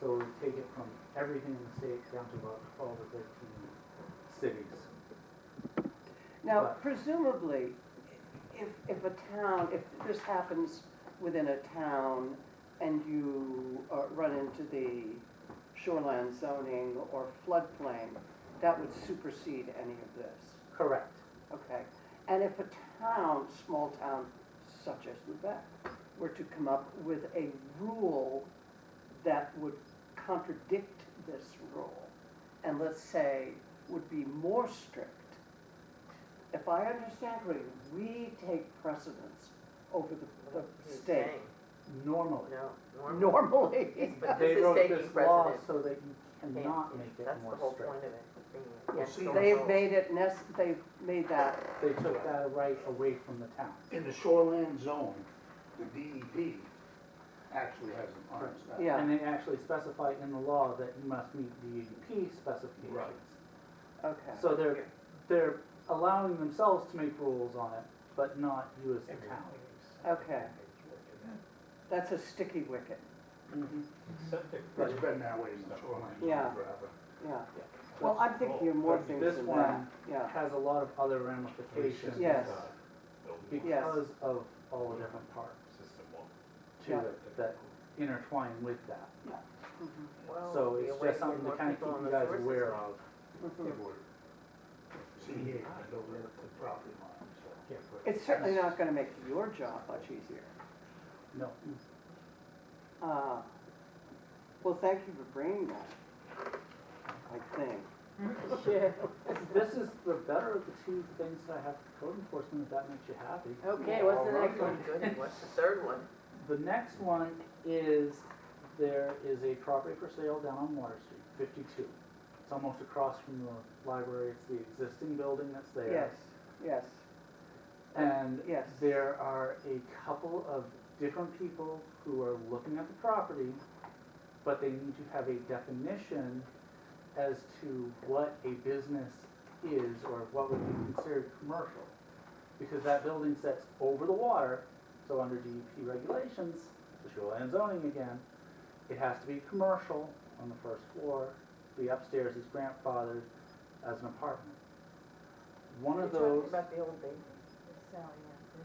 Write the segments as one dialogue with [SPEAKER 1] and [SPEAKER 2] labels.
[SPEAKER 1] So we take it from everything in the state down to about twelve or thirteen cities.
[SPEAKER 2] Now,
[SPEAKER 1] But-
[SPEAKER 2] presumably, if, if a town, if this happens within a town and you uh, run into the shoreline zoning or floodplain, that would supersede any of this,
[SPEAKER 1] Correct.
[SPEAKER 2] okay? And if a town, small town such as Lubec, were to come up with a rule that would contradict this rule, and let's say would be more strict, if I understand correctly, we take precedence over the, the
[SPEAKER 3] He's
[SPEAKER 2] state
[SPEAKER 3] saying,
[SPEAKER 1] Normally.
[SPEAKER 3] No, normal.
[SPEAKER 2] normally.
[SPEAKER 3] But
[SPEAKER 1] They
[SPEAKER 3] this is
[SPEAKER 1] wrote
[SPEAKER 3] taking
[SPEAKER 1] this law
[SPEAKER 3] precedent.
[SPEAKER 1] so that you
[SPEAKER 3] Yeah,
[SPEAKER 1] cannot make it
[SPEAKER 3] That's the
[SPEAKER 1] more
[SPEAKER 3] whole
[SPEAKER 1] strict.
[SPEAKER 3] point of it, is bringing it
[SPEAKER 1] Well,
[SPEAKER 3] against
[SPEAKER 1] see,
[SPEAKER 3] the
[SPEAKER 2] They've
[SPEAKER 3] rules.
[SPEAKER 2] made it nec, they've made that,
[SPEAKER 1] They took that right away from the town.
[SPEAKER 4] In the shoreline zone, the DEP actually has an honest estimate.
[SPEAKER 2] Yeah.
[SPEAKER 1] And they actually specify in the law that you must meet DEP
[SPEAKER 4] Right.
[SPEAKER 1] specifications.
[SPEAKER 2] okay,
[SPEAKER 1] So they're, they're allowing themselves to make rules on it, but not you as the town.
[SPEAKER 2] okay. That's a sticky wicket,
[SPEAKER 1] Mm-hmm.
[SPEAKER 4] It's been that way in the shoreline
[SPEAKER 2] Yeah.
[SPEAKER 4] zone forever.
[SPEAKER 2] yeah. Well, I'm thinking of more
[SPEAKER 1] But
[SPEAKER 2] things
[SPEAKER 1] this
[SPEAKER 2] than that,
[SPEAKER 1] one-
[SPEAKER 2] yeah,
[SPEAKER 1] Has a lot of other ramifications.
[SPEAKER 2] Yes.
[SPEAKER 1] Because of all the different parts to
[SPEAKER 2] Yeah.
[SPEAKER 1] it that intertwine with that.
[SPEAKER 2] mhm,
[SPEAKER 3] Well,
[SPEAKER 1] So
[SPEAKER 3] it'd be
[SPEAKER 1] it's
[SPEAKER 3] a way
[SPEAKER 1] just
[SPEAKER 3] to get
[SPEAKER 1] something to
[SPEAKER 3] more
[SPEAKER 1] kind of
[SPEAKER 3] people on
[SPEAKER 1] keep you
[SPEAKER 3] the Hmm.
[SPEAKER 1] guys
[SPEAKER 3] sewer
[SPEAKER 1] aware
[SPEAKER 3] system.
[SPEAKER 1] of. Mm-hmm.
[SPEAKER 2] mhm.
[SPEAKER 4] It would. CEA was over at the property line, so.
[SPEAKER 2] It's certainly not gonna make your job much easier.
[SPEAKER 1] No,
[SPEAKER 2] Uh, Well, thank you for bringing that, I think.
[SPEAKER 1] this is the better of the two things that I have for code enforcement, if that makes you happy.
[SPEAKER 3] Okay,
[SPEAKER 4] what's the next
[SPEAKER 3] one? What's the third one?
[SPEAKER 1] The next one is, there is a property for sale down on Water Street, fifty-two. It's almost across from the library, it's the existing building that's there.
[SPEAKER 2] Yes, yes,
[SPEAKER 1] And
[SPEAKER 2] Yes.
[SPEAKER 1] there are a couple of different people who are looking at the property, but they need to have a definition as to what a business is or what would be considered commercial. Because that building sits over the water, so under DEP regulations, the shoreline zoning again, it has to be commercial on the first floor, the upstairs is grandfathered as an apartment. One
[SPEAKER 3] You're
[SPEAKER 1] of
[SPEAKER 3] talking
[SPEAKER 1] those.
[SPEAKER 3] about the old baby.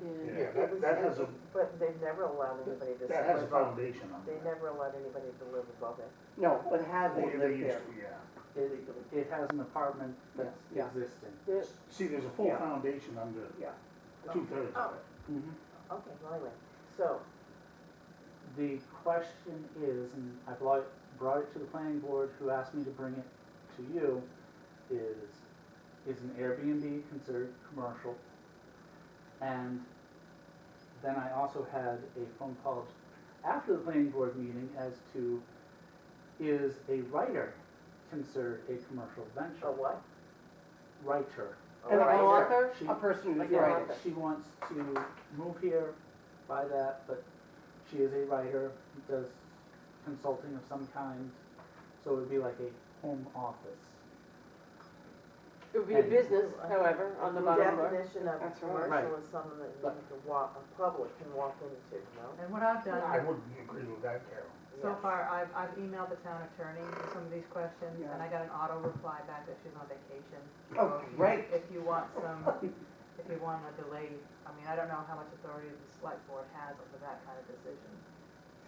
[SPEAKER 4] Yeah,
[SPEAKER 3] It
[SPEAKER 4] that,
[SPEAKER 3] was-
[SPEAKER 4] that has a,
[SPEAKER 3] But they've never allowed anybody to
[SPEAKER 4] that has a
[SPEAKER 3] live above,
[SPEAKER 4] foundation on
[SPEAKER 3] they
[SPEAKER 4] it.
[SPEAKER 3] never allowed anybody to live above it.
[SPEAKER 2] no, but had they
[SPEAKER 4] Or they
[SPEAKER 2] lived
[SPEAKER 4] used
[SPEAKER 2] there,
[SPEAKER 4] to, yeah.
[SPEAKER 1] It, it has an apartment that's
[SPEAKER 2] Yeah.
[SPEAKER 1] existing.
[SPEAKER 4] See, there's a full
[SPEAKER 2] Yeah.
[SPEAKER 4] foundation under
[SPEAKER 2] Yeah.
[SPEAKER 4] two thirds of it.
[SPEAKER 2] Mm-hmm.
[SPEAKER 3] Oh, Okay, well, anyway, so,
[SPEAKER 1] The question is, and I brought, brought it to the planning board, who asked me to bring it to you, is, is an Airbnb considered commercial? And then I also had a phone call after the planning board meeting as to, is a writer considered a commercial venture?
[SPEAKER 2] Oh,
[SPEAKER 3] a what?
[SPEAKER 1] Writer.
[SPEAKER 3] A
[SPEAKER 2] an
[SPEAKER 3] writer.
[SPEAKER 2] author,
[SPEAKER 1] She-
[SPEAKER 2] a person who's
[SPEAKER 3] Yeah.
[SPEAKER 2] writing.
[SPEAKER 1] She wants to move here, buy that, but she is a writer, does consulting of some kind, so it would be like a home office.
[SPEAKER 5] It would be a
[SPEAKER 1] And-
[SPEAKER 5] business, however, on the bottom
[SPEAKER 3] The
[SPEAKER 5] bar.
[SPEAKER 3] definition of
[SPEAKER 2] That's right.
[SPEAKER 3] commercial is something that you
[SPEAKER 1] But-
[SPEAKER 3] can walk, a public can walk into, no?
[SPEAKER 6] And what I've
[SPEAKER 4] I
[SPEAKER 6] done,
[SPEAKER 4] wouldn't agree with that, Carol.
[SPEAKER 6] so
[SPEAKER 3] Yes.
[SPEAKER 6] far, I've, I've emailed the town attorney with some of these questions,
[SPEAKER 2] Yeah.
[SPEAKER 6] and I got an auto reply back that she's on vacation.
[SPEAKER 2] Oh,
[SPEAKER 6] So
[SPEAKER 2] great.
[SPEAKER 6] If you want some, if you want a delay, I mean, I don't know how much authority the select board has over that kind of decision.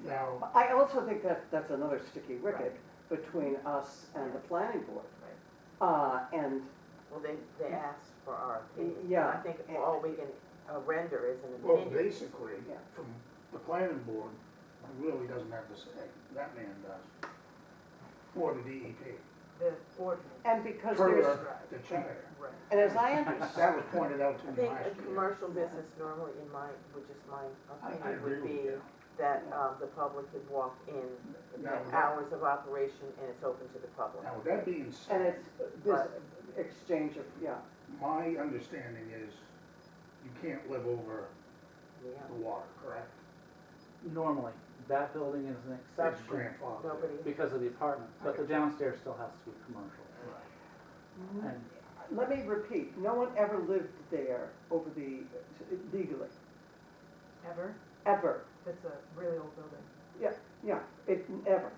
[SPEAKER 4] Now,
[SPEAKER 2] I also think that, that's another sticky wicket between us and the planning board.
[SPEAKER 6] Right.
[SPEAKER 2] Uh, and,
[SPEAKER 3] Well, they, they asked for our opinion. and
[SPEAKER 2] Yeah.
[SPEAKER 3] I think all we can uh, render is an
[SPEAKER 4] well,
[SPEAKER 3] opinion.
[SPEAKER 4] basically,
[SPEAKER 2] Yeah.
[SPEAKER 4] from the planning board, really doesn't have to say, that man does. Or the E DEP,
[SPEAKER 6] The ordinance.
[SPEAKER 2] and because
[SPEAKER 4] Per
[SPEAKER 2] there's,
[SPEAKER 6] Right.
[SPEAKER 4] the charter.
[SPEAKER 6] Right.
[SPEAKER 2] and as I understand.
[SPEAKER 4] That was pointed out
[SPEAKER 3] I
[SPEAKER 4] to me
[SPEAKER 3] think
[SPEAKER 4] last
[SPEAKER 3] a
[SPEAKER 4] year.
[SPEAKER 3] commercial business normally in my, which is my
[SPEAKER 4] I- I
[SPEAKER 3] opinion,
[SPEAKER 4] agree
[SPEAKER 3] would
[SPEAKER 4] with
[SPEAKER 3] be
[SPEAKER 4] you.
[SPEAKER 3] that um, the public could walk in,
[SPEAKER 4] Now, that-
[SPEAKER 3] hours of operation, and it's open to the public.
[SPEAKER 4] now, with that being
[SPEAKER 2] And
[SPEAKER 4] said,
[SPEAKER 2] it's this exchange of, yeah,
[SPEAKER 4] my understanding is you can't live over
[SPEAKER 3] Yeah.
[SPEAKER 4] the water, correct?
[SPEAKER 1] Normally, that building is an
[SPEAKER 4] That's
[SPEAKER 1] exception
[SPEAKER 4] grandfathered.
[SPEAKER 3] Nobody,
[SPEAKER 1] because of the apartment, but the downstairs still has to be commercial. And
[SPEAKER 2] let me repeat, no one ever lived there over the, legally,
[SPEAKER 6] Ever,
[SPEAKER 2] ever,
[SPEAKER 6] that's a really old building.
[SPEAKER 2] yeah, it, ever.